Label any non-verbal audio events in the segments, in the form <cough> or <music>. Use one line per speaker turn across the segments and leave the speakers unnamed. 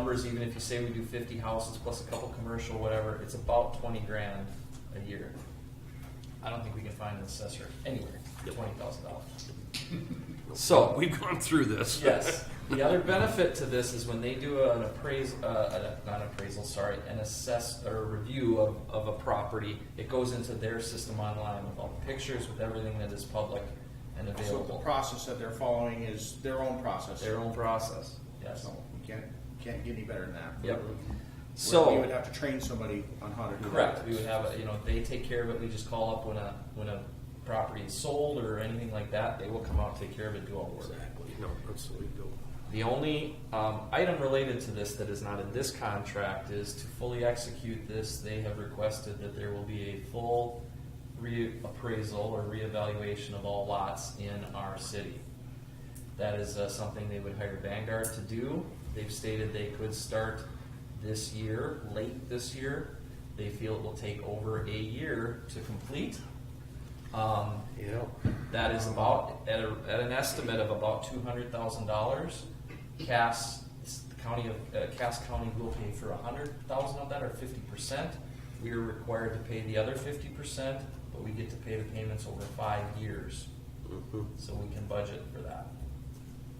numbers, even if you say we do fifty houses plus a couple commercial, whatever, it's about twenty grand a year. I don't think we can find an assessor anywhere, for twenty thousand dollars.
<laughs>
So,
<laughs> We've gone through this.
Yes. The other benefit to this is when they do an appraisal, uh, an- not appraisal, sorry, an assess or review of, of a property, it goes into their system online with all the pictures, with everything that is public and
So the
available.
process that they're following is their own process.
Their own process, yes.
So you can't, can't get any better than that.
Yep.
Where
So-
You would have to train somebody on how to do that.
Correct, we would have, a you know, they take care of it, we just call up when a, when a property is sold or anything like that, they will come out, take care of it, do all the work.
Exactly. No, that's the way to go.
The only um, item related to this that is not in this contract is to fully execute this, they have requested that there will be a full reappraisal or reevaluation of all lots in our city. That is uh, something they would hire Vanguard to do. They've stated they could start this year, late this year. They feel it will take over a year to complete. Um,
Yeah.
that is about, at, a, at an estimate of about two hundred thousand dollars. Cass, the county of, uh, Cass County will pay for a hundred thousand of that or fifty percent. We are required to pay the other fifty percent, but we get to pay the payments over five years,
Mhm.
so we can budget for that.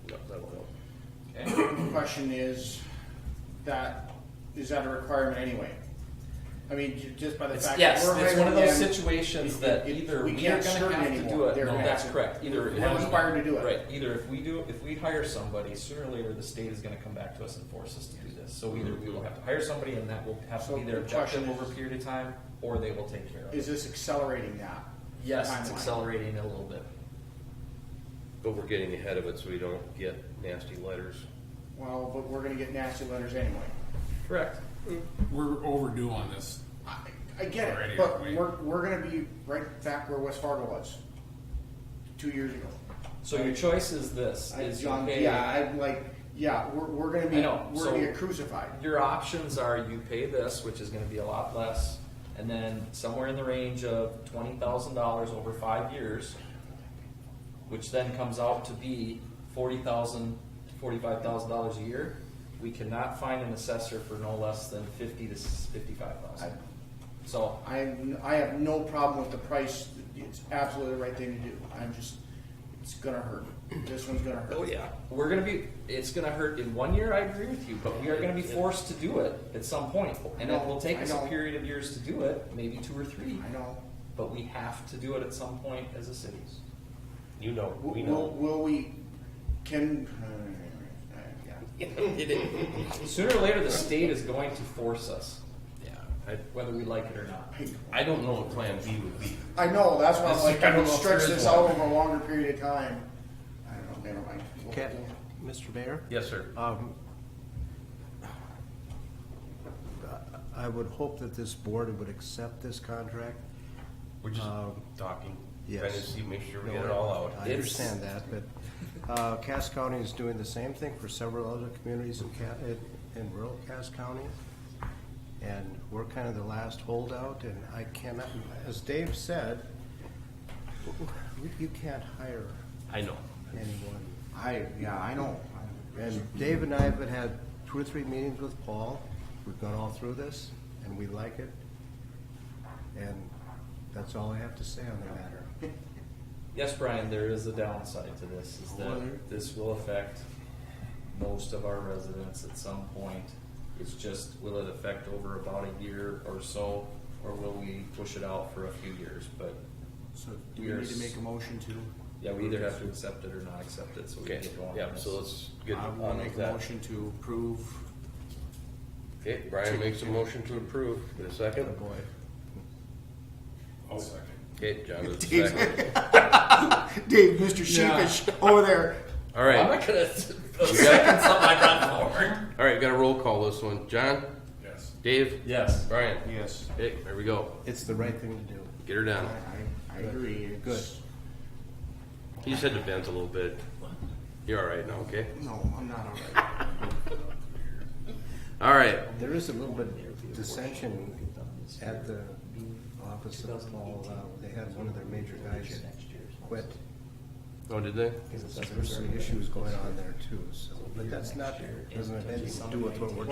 Yeah, that'll help.
Okay?
The Question is, that, is that a requirement anyway? I mean, ju- just by the
It's,
fact. that
yes,
we're
it's one of
hiring
those
them,
situations
it-
that
it-
either
we
we are
can't
gonna
skirt
have to do
anymore.
it,
They're
no,
gonna
that's
have to-
correct, either.
we're required to do it.
Right, either if we do, if we hire somebody, sooner or later, the state is gonna come back to us and force us to do this. So either we will have to hire somebody and that will have to
So
be their
the question
objective over a
is-
period of time, or they will take care of
Is
it.
this accelerating that?
Yes, it's
timeline?
accelerating a little bit.
But we're getting ahead of it so we don't get nasty letters.
Well, but we're gonna get nasty letters anyway.
Correct.
We're overdue on this.
I, I get
Already,
it, but
aren't we?
we're, we're gonna be right back where West Fargo was, two years ago.
So your choice is this,
I,
is you
John,
pay-
yeah, I'm like, yeah, we're, we're gonna be,
I know,
we're gonna
so-
get crucified.
Your options are you pay this, which is gonna be a lot less, and then somewhere in the range of twenty thousand dollars over five years, which then comes out to be forty thousand, forty-five thousand dollars a year. We cannot find an assessor for no less than fifty to fifty-five thousand. So,
I, I have no problem with the price. It's absolutely the right thing to do. I'm just, it's gonna hurt. This one's gonna hurt.
Oh, yeah.
we're gonna be, it's gonna hurt in one year, I agree with you, but we are gonna be forced to do it at some point. And it will take us
I
a
know.
period of years to do it, maybe two or three.
I know.
but we have to do it at some point as a city.
You know, we
W- Will,
know.
will we, can, uh,
<laughs>
yeah.
Sooner or later, the state is going to force us,
Yeah. I,
whether we like it or not.
I don't know what plan B would be.
I know, that's why I'm
This-
like,
I
I'm
don't
gonna
know if
stretch
there is
this out over a longer period of time. I don't know, never mind. We'll-
Okay,
we'll-
Mr. Mayor,
Yes, sir.
um, I would hope that this board would accept this contract.
We're just
Um,
talking.
yes.
Trying to see, make sure we get it all out.
I understand that, but, uh, Cass County is doing the same thing for several other communities in Ca- in, in rural Cass County. And we're kind of the last holdout, and I cannot, as Dave said, you can't hire
I know.
anyone
I, yeah, I know.
And Dave and I have had two or three meetings with Paul. We've gone all through this, and we like it. And that's all I have to say on the matter.
Yes, Brian, there is a downside to this, is
Well,
that
there-
this will affect most of our residents at some point. It's just, will it affect over about a year or so, or will we push it out for a few years? But,
So
do we We are need to s- make a
motion to?
yeah, we either have to accept it or not accept it, so we can
Okay,
get going on
yeah,
this.
so let's get on with that.
to approve.
Okay, Brian makes a motion to approve. Get a second?
boy.
Oh, second.
Okay, John does a <laughs>
Dave's-
second.
<laughs> Dave, Mr. Sheepish over there.
All right.
I'm not gonna <laughs>
got-
second something I brought forward.
All right, we got a roll call this one. John,
Yes.
Dave,
Yes.
Brian.
Yes.
Hey, there we go.
It's the right thing to do.
Get her
I,
done.
I- I agree.
Good.
It's,
You just had to bend a little bit. You're all right now, okay?
no, I'm not all right.
All right.
There is a little bit of dissension at the office of Paul. Uh, They had one of their major guys quit.
Oh, did they?
There's some issues going on there too, so, but that's not, doesn't have anything to do with what we're